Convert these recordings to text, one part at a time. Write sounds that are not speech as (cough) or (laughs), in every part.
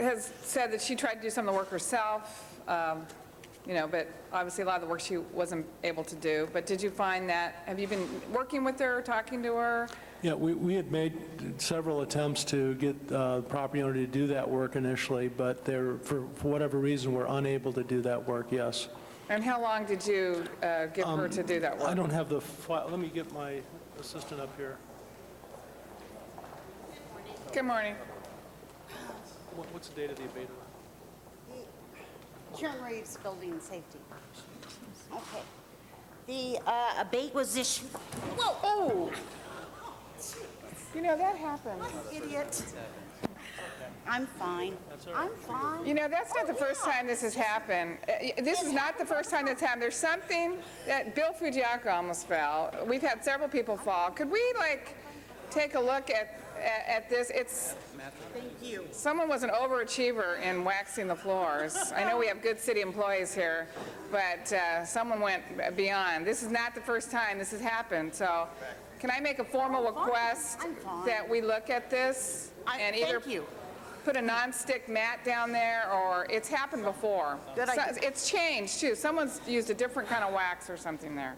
has said that she tried to do some of the work herself, um, you know, but obviously a lot of the work she wasn't able to do. But did you find that, have you been working with her, talking to her? Yeah, we, we had made several attempts to get uh, the property owner to do that work initially, but they're, for for whatever reason, were unable to do that work, yes. And how long did you uh, give her to do that I work? don't have the file, let me get my assistant up here. Good morning. What- What's the date of the abatement? Karen Reeves, Building and Safety. Okay. The uh, abate was issued, Oh! You know, that happened. idiot. I'm fine. I'm fine. You know, that's not the first time this has happened. Uh, y- This is not the first time that's happened. There's something that Bill Fujiaka almost fell. We've had several people fall. Could we, like, take a look at, at at this? It's, Thank you. someone was an overachiever in waxing the floors. I know we have good city employees here, but uh, someone went beyond. This is not the first time this has happened, so can I make a formal fine. request I'm fine. that we look at this? I- and either thank you. Put a non-stick mat down there, or, it's happened before. Good idea. So- It's changed, too. Someone's used a different kind of wax or something there.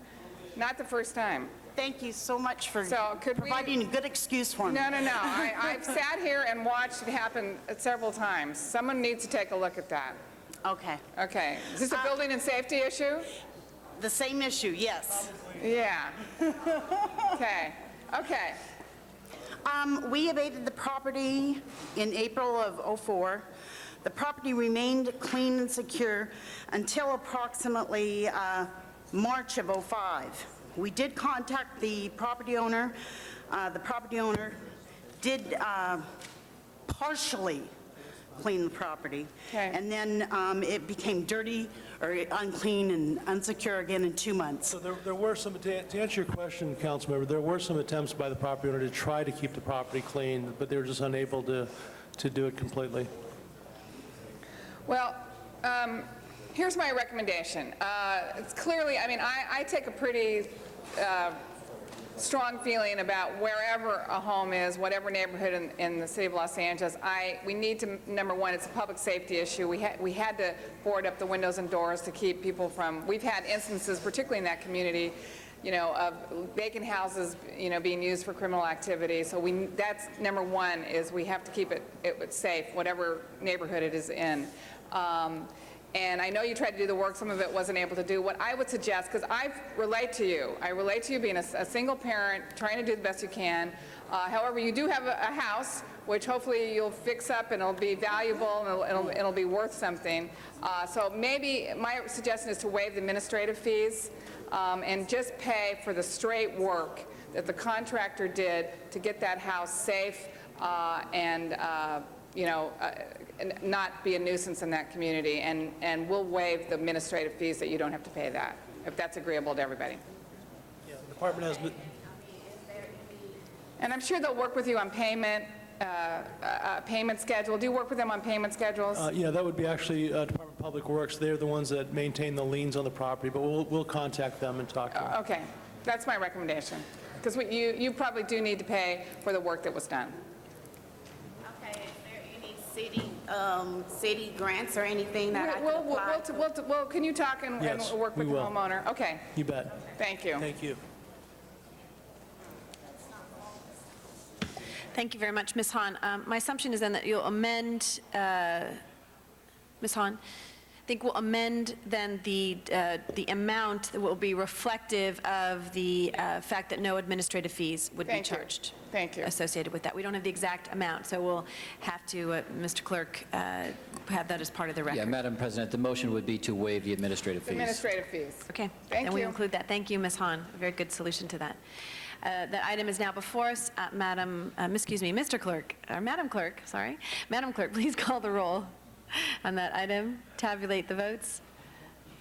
Not the first time. Thank you so much for So could we- providing a good excuse for me. No, no, no. I, I've sat here and watched it happen several times. Someone needs to take a look at that. Okay. Okay. Is this a building and safety issue? The same issue, yes. Yeah. Okay. Okay. Um, We abated the property in April of '04. The property remained clean and secure until approximately uh, March of '05. We did contact the property owner. Uh, The property owner did uh, partially clean the property. Okay. And then um, it became dirty or unclean and unsecure again in two months. So there, there were some, to to answer your question, Councilmember, there were some attempts by the property owner to try to keep the property clean, but they were just unable to, to do it completely. Well, um, here's my recommendation. Uh, it's clearly, I mean, I, I take a pretty strong feeling about wherever a home is, whatever neighborhood in, in the city of Los Angeles, I, we need to, number one, it's a public safety issue. We had, we had to board up the windows and doors to keep people from, we've had instances, particularly in that community, you know, of vacant houses, you know, being used for criminal activity. So we, that's, number one, is we have to keep it, it safe, whatever neighborhood it is in. Um, and I know you tried to do the work, some of it wasn't able to do. What I would suggest, because I relate to you, I relate to you being a, s- a single parent, trying to do the best you can. Uh, however, you do have a, a house, which hopefully you'll fix up and it'll be valuable and it'll, it'll, it'll be worth something. Uh, so maybe my suggestion is to waive the administrative fees um, and just pay for the straight work that the contractor did to get that house safe uh, and, uh, you know, uh, n- not be a nuisance in that community, and, and we'll waive the administrative fees that you don't have to pay that, if that's agreeable to everybody. Yeah, The Department has, n- And I'm sure they'll work with you on payment, uh, uh, uh, payment schedule. Do you work with them on payment schedules? Uh, Yeah, that would be actually uh, Department of Public Works. They're the ones that maintain the liens on the property, but we'll, we'll contact them and talk to them. Okay, that's my recommendation, because you, you probably do need to pay for the work that was done. Okay, is there any city, um, city grants or anything that I We'll- could we'll- apply? we'll- we'll- Well, can you talk and, and Yes, work we with the will. homeowner? Okay, You bet. thank you. Thank you. Thank you very much, Ms. Hahn. Um, My assumption is then that you'll amend, uh, Ms. Hahn, I think we'll amend then the, uh, the amount that will be reflective of the uh, fact that no administrative fees would be Thank you. charged. Thank you. Associated with that. We don't have the exact amount, so we'll have to, uh, Mr. Clerk, uh, have that as part of the record. Yeah, Madam President, the motion would be to waive the administrative fees. Administrative fees. Okay. Thank And we you. include that. Thank you, Ms. Hahn. A very good solution to that. Uh, That item is now before us. Uh, Madam, uh, excuse me, Mr. Clerk, or Madam Clerk, sorry. Madam Clerk, (laughs) please call the roll on that item. Tabulate the votes.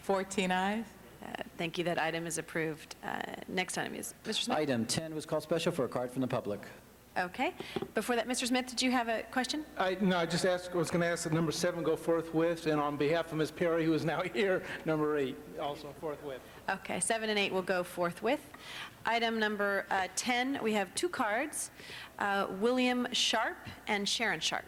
14 eyes. Uh, Thank you. That item is approved. Uh, Next item is, Mr. Smith? Item 10 was called special for a card from the public. Okay. Before that, Mr. Smith, did you have a question? I, no, I just asked, was going to ask that number seven go forthwith, and on behalf of Ms. Perry, who is now (laughs) here, number eight, also forthwith. Okay, seven and eight will go forthwith. Item number uh, 10, we have two cards, uh, William Sharp and Sharon Sharp.